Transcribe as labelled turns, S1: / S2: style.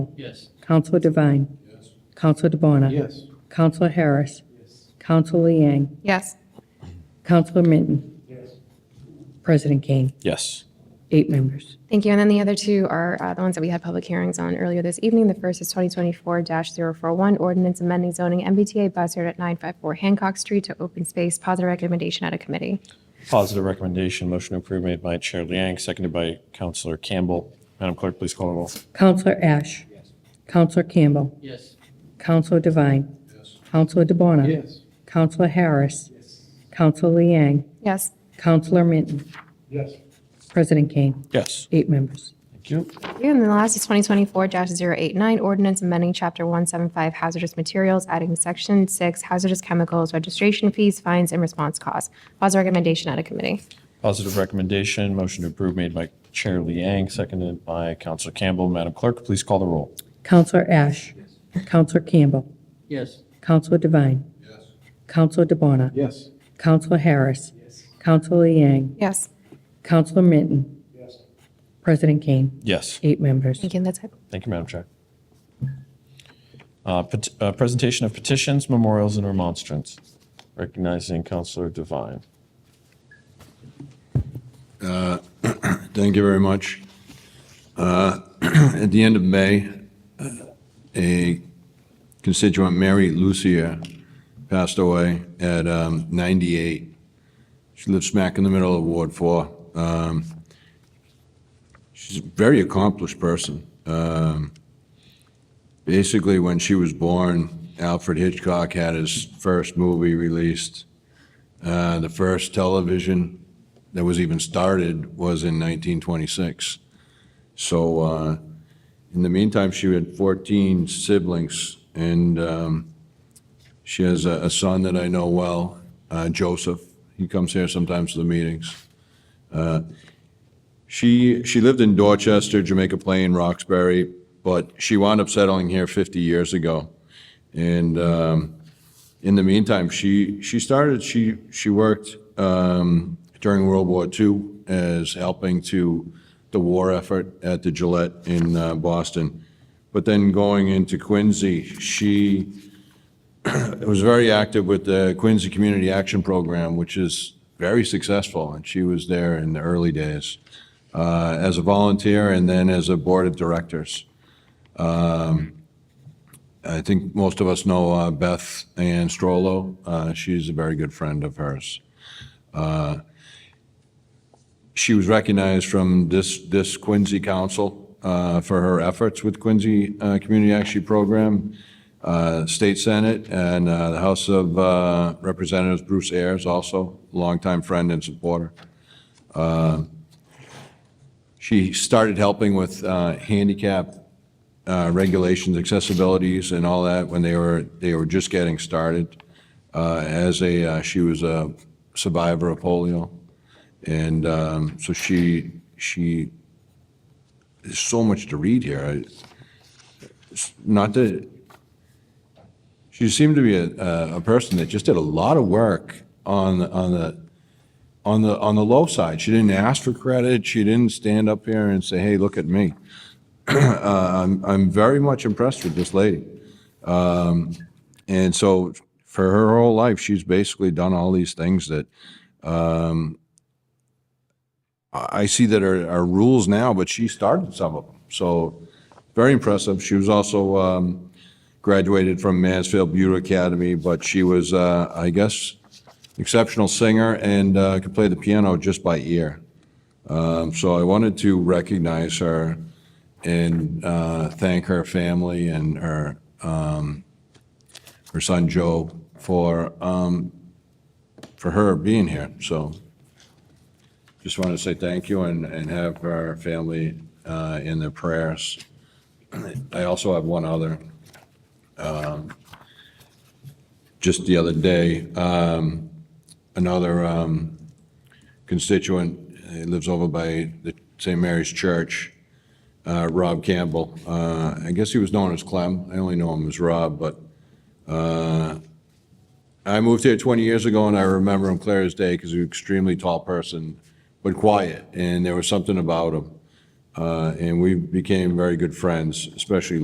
S1: Yes.
S2: Counselor Devine.
S1: Yes.
S2: Counselor DeBona.
S1: Yes.
S2: Counselor Harris. Counselor Liang.
S3: Yes.
S2: Counselor Minton.
S1: Yes.
S2: President Kane.
S4: Yes.
S2: Eight members.
S3: Thank you. And then the other two are uh, the ones that we had public hearings on earlier this evening. The first is 2024-041, ordinance amending zoning MBTA bus route at 954 Hancock Street to open space, positive recommendation out of committee.
S4: Positive recommendation, motion to approve made by Chair Liang, seconded by Counselor Campbell. Madam Clerk, please call the roll.
S2: Counselor Ash. Counselor Campbell.
S1: Yes.
S2: Counselor Devine.
S1: Yes.
S2: Counselor DeBona.
S1: Yes.
S2: Counselor Harris. Counselor Liang.
S3: Yes.
S2: Counselor Minton.
S1: Yes.
S2: President Kane.
S4: Yes.
S2: Eight members.
S4: Thank you.
S3: Thank you. And the last is 2024-089, ordinance amending Chapter 175 hazardous materials, adding Section 6 hazardous chemicals, registration fees, fines, and response costs. Positive recommendation out of committee.
S4: Positive recommendation, motion to approve made by Chair Liang, seconded by Counselor Campbell. Madam Clerk, please call the roll.
S2: Counselor Ash. Counselor Campbell.
S1: Yes.
S2: Counselor Devine.
S1: Yes.
S2: Counselor DeBona.
S1: Yes.
S2: Counselor Harris. Counselor Liang.
S3: Yes.
S2: Counselor Minton.
S1: Yes.
S2: President Kane.
S4: Yes.
S2: Eight members.
S3: Thank you. And That's it.
S4: Thank you, Madam Chair. Uh, pet- uh, Presentation of petitions, memorials, and remonstrance. Recognizing Counselor Devine.
S5: Thank you very much. Uh, At the end of May, uh, a constituent, Mary Lucia, passed away at um, 98. She lived smack in the middle of Ward 4. Um, She's a very accomplished person. Um, Basically, when she was born, Alfred Hitchcock had his first movie released. Uh, The first television that was even started was in 1926. So uh, in the meantime, she had 14 siblings, and um, she has a a son that I know well, uh, Joseph. He comes here sometimes to the meetings. Uh, She, she lived in Dorchester, Jamaica Plain, Roxbury, but she wound up settling here 50 years ago. And um, in the meantime, she, she started, she, she worked um, during World War II as helping to the war effort at the Gillette in uh, Boston. But then going into Quincy, she was very active with the Quincy Community Action Program, which is very successful, and she was there in the early days uh, as a volunteer and then as a board of directors. I think most of us know uh, Beth Ann Strollo. Uh, She's a very good friend of hers. Uh, She was recognized from this, this Quincy Council uh, for her efforts with Quincy uh, Community Action Program, uh, State Senate, and uh, the House of uh, Representatives, Bruce Ayers, also longtime friend and supporter. Uh, She started helping with uh, handicap uh, regulations, accessibilities, and all that when they were, they were just getting started. Uh, As a, uh, she was a survivor of polio, and um, so she, she, there's so much to read here. I- it's Not that, she seemed to be a, a- a person that just did a lot of work on, on the, on the, on the low side. She didn't ask for credit, she didn't stand up here and say, hey, look at me. I'm, I'm very much impressed with this lady. Um, and so for her whole life, she's basically done all these things that, um, I I see that are, are rules now, but she started some of them. So very impressive. She was also, um, graduated from Mansfield Beauty Academy, but she was, uh, I guess, exceptional singer and, uh, could play the piano just by ear. Um, so I wanted to recognize her and uh, thank her family and her, um, her son Joe for, um, for her being here. So just wanted to say thank you and, and have her family uh, in their prayers. I also have one other. Um, Just the other day, um, another um, constituent, he lives over by the St. Mary's Church, uh, Rob Campbell. Uh, I guess he was known as Clem. I only know him as Rob, but uh, I moved here 20 years ago and I remember him clear as day because he was an extremely tall person, but quiet, and there was something about him. Uh, And we became very good friends, especially